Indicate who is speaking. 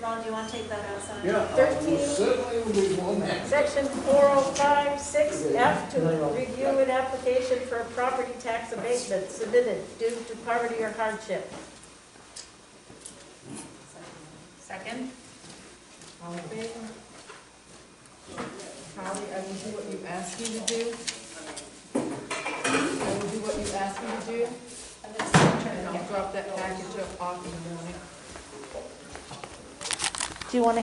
Speaker 1: Ron, do you want to take that outside?
Speaker 2: Yeah, I
Speaker 3: Thirteen.
Speaker 2: will certainly will be one that.
Speaker 3: Section 4056F to review an application for a property tax abatement submitted due to poverty or hardship.
Speaker 1: Second?
Speaker 4: All in favor? Holly, I will do what you ask me to do. I will do what you ask me to do,
Speaker 1: And this is
Speaker 4: and I'll drop that package off in the morning.
Speaker 3: Do you want to